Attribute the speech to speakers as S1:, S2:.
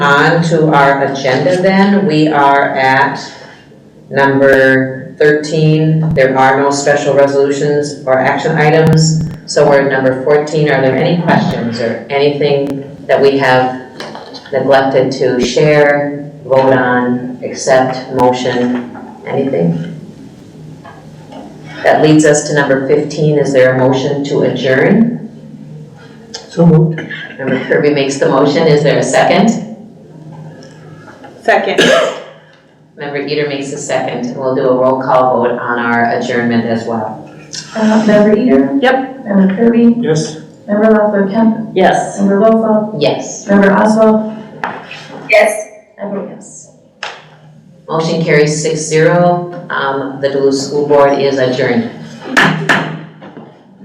S1: On to our agenda then, we are at number 13. There are no special resolutions or action items, so we're at number 14. Are there any questions or anything that we have neglected to share, vote on, accept, motion, anything? That leads us to number 15. Is there a motion to adjourn?
S2: So moved.
S1: Member Kirby makes the motion. Is there a second?
S3: Second.
S1: Member Eater makes a second. We'll do a roll call vote on our adjournment as well.
S4: Uh, Member Eater? Yep. Member Kirby?
S2: Yes.
S4: Member Lothar Kemp?
S3: Yes.
S4: Member Lofa?
S1: Yes.
S4: Member Oswald?
S3: Yes.
S4: I vote yes.
S1: Motion carries six zero. Um, the Duluth School Board is adjourned.